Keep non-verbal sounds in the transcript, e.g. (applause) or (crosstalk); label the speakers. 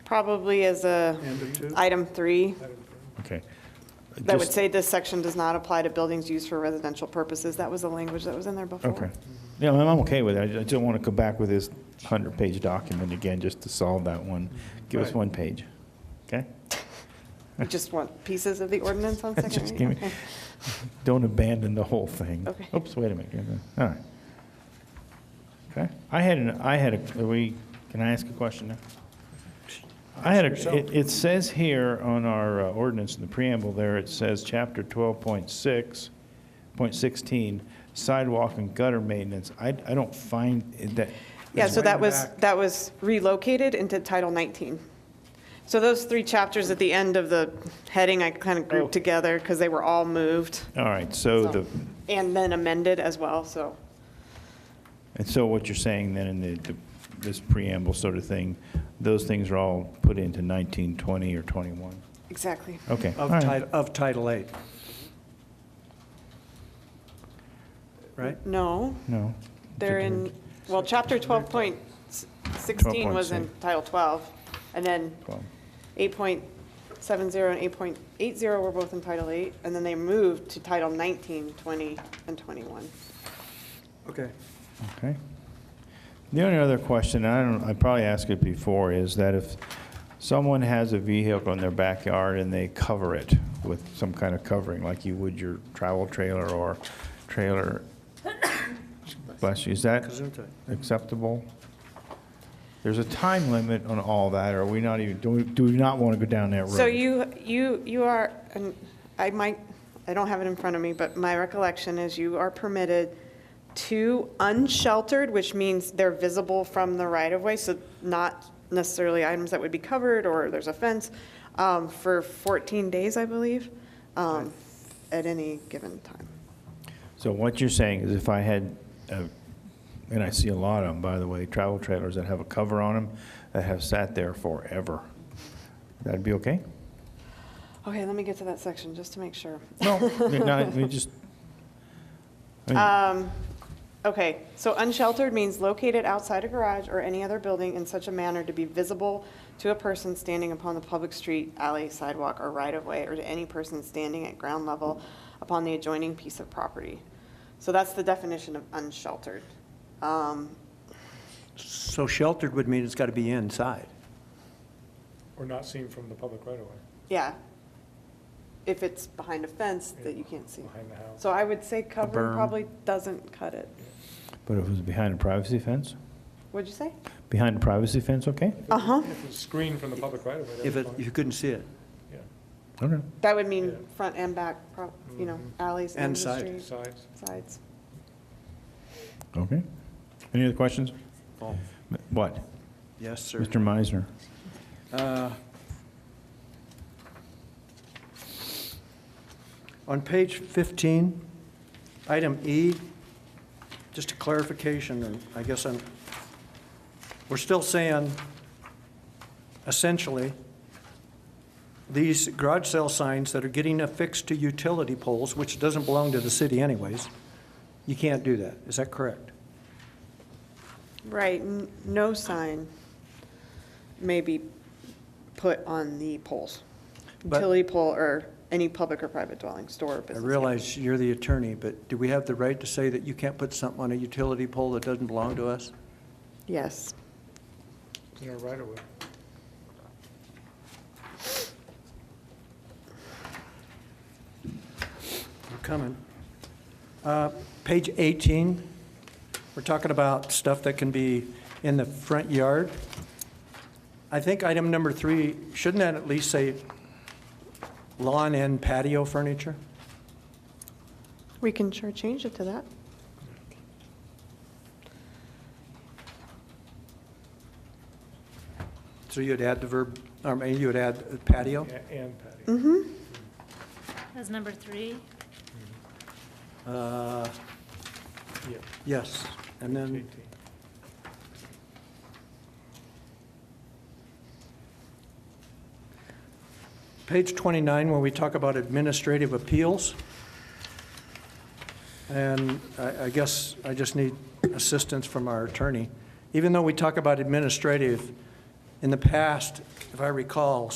Speaker 1: probably as a
Speaker 2: End of two?
Speaker 1: item three,
Speaker 3: Okay.
Speaker 1: that would
Speaker 3: Just-
Speaker 1: say this section does not apply to buildings used for residential purposes. That was the language that was in there before.
Speaker 3: Okay. Yeah, I'm I'm okay with it. I ju- I just want to go back with this 100-page document again, just to solve that one. Give us
Speaker 2: Right.
Speaker 3: one page, okay?
Speaker 1: You just want pieces of the ordinance
Speaker 3: (laughs)
Speaker 1: on second
Speaker 3: Just give
Speaker 1: reading?
Speaker 3: me, don't abandon the whole thing.
Speaker 1: Okay.
Speaker 3: Oops, wait a minute, you're done. all right. Okay, I had, an I had, a. are we, can I ask a question now? I had, a. it- it says here on our uh, ordinance in the preamble there, it says, chapter 12.6, point 16, sidewalk and gutter maintenance. I, I don't find it that,
Speaker 1: Yeah, so
Speaker 2: way
Speaker 1: that
Speaker 2: in
Speaker 1: was,
Speaker 2: back.
Speaker 1: that was relocated into Title 19. So those three chapters at the end of the heading, I kind of
Speaker 3: Oh.
Speaker 1: grouped together because they were all moved.
Speaker 3: all right, so
Speaker 1: so-
Speaker 3: the,
Speaker 1: And then amended as well, so.
Speaker 3: and so what you're saying then in the, the- this preamble sort of thing, those things are all put into 19, 20, or 21?
Speaker 1: Exactly.
Speaker 3: Okay. all
Speaker 2: Of
Speaker 3: right.
Speaker 2: Title, of Title Eight. Right?
Speaker 1: No,
Speaker 3: No.
Speaker 1: they're in, well, Chapter 12.16 was in
Speaker 3: 12.6.
Speaker 1: Title 12, and then 8.70 and 8.80 were both in Title 8, and then they moved to Title 19, 20, and 21.
Speaker 2: Okay.
Speaker 3: Okay. The only other question, I don't, I probably asked it before, is that if someone has a vehicle in their backyard and they cover it with some kind of covering, like you would your travel trailer or trailer, bless you, is that
Speaker 2: Gesundheit.
Speaker 3: acceptable? There's a time limit on all that, or are we not even, do we, do we not want to go down that road?
Speaker 1: So you, you, you are, and I might, I don't have it in front of me, but my recollection is you are permitted two unsheltered, which means they're visible from the right-of-way, so not necessarily items that would be covered, or there's a fence, um, for 14 days, I believe, um, at any given time.
Speaker 3: So what you're saying is if I had, a- and I see a lot of them, by the way, travel trailers that have a cover on them that have sat there forever, that'd be okay?
Speaker 1: Okay, let me get to that section, just to make sure.
Speaker 3: No, (laughs) no, we just, I
Speaker 1: Um, okay, so unsheltered means located outside a garage or any other building in such a manner to be visible to a person standing upon the public street, alley, sidewalk, or right-of-way, or to any person standing at ground level upon the adjoining piece of property. So that's the definition of unsheltered. Um,
Speaker 2: So sheltered would mean it's got to be inside.
Speaker 4: Or not seen from the public right away,
Speaker 1: yeah. If it's behind a fence that you can't see.
Speaker 4: behind the house.
Speaker 1: So I would say cover
Speaker 2: berm.
Speaker 1: probably doesn't cut it.
Speaker 3: mean, but if it was behind a privacy fence?
Speaker 1: What'd you say?
Speaker 3: Behind a privacy fence, okay?
Speaker 1: Uh-huh.
Speaker 4: If it's screened from the public right away,
Speaker 2: If
Speaker 4: that's
Speaker 2: it,
Speaker 4: fine.
Speaker 2: you couldn't see it.
Speaker 4: Yeah,
Speaker 3: Okay.
Speaker 1: That would mean
Speaker 4: Yeah.
Speaker 1: front and back, prob- you know, alleys,
Speaker 2: Mm-hmm. And
Speaker 1: ends of
Speaker 2: side.
Speaker 1: street.
Speaker 4: sides.
Speaker 1: sides.
Speaker 3: Okay. Any other questions?
Speaker 2: Oh,
Speaker 3: What?
Speaker 2: Yes, sir.
Speaker 3: Mr. Meisner?
Speaker 2: Uh, On page 15, item E, just a clarification, and I guess I'm, we're still saying, essentially, these garage sale signs that are getting affixed to utility poles, which doesn't belong to the city anyways, you can't do that. Is that correct?
Speaker 1: Right, n- no sign may be put on the poles.
Speaker 2: But-
Speaker 1: Utility pole or any public or private dwelling, store, or
Speaker 2: I
Speaker 1: business.
Speaker 2: realize you're the attorney, but do we have the right to say that you can't put something on a utility pole that doesn't belong to us?
Speaker 1: Yes.
Speaker 4: in our right away.
Speaker 2: We're coming. Uh, Page 18, we're talking about stuff that can be in the front yard. I think item number three, shouldn't that at least say lawn and patio furniture?
Speaker 1: We can sure change it to that.
Speaker 2: So you'd add the verb, I mean, you would add patio?
Speaker 4: Yeah, And patio.
Speaker 1: Mm-hmm.
Speaker 5: That's number three.
Speaker 2: Uh,
Speaker 4: Yeah,
Speaker 2: Yes, and
Speaker 4: it's
Speaker 2: then
Speaker 4: 18.
Speaker 2: Page 29, when we talk about administrative appeals, and I I guess I just need assistance from our attorney. Even though we talk about administrative, In the past, if I recall,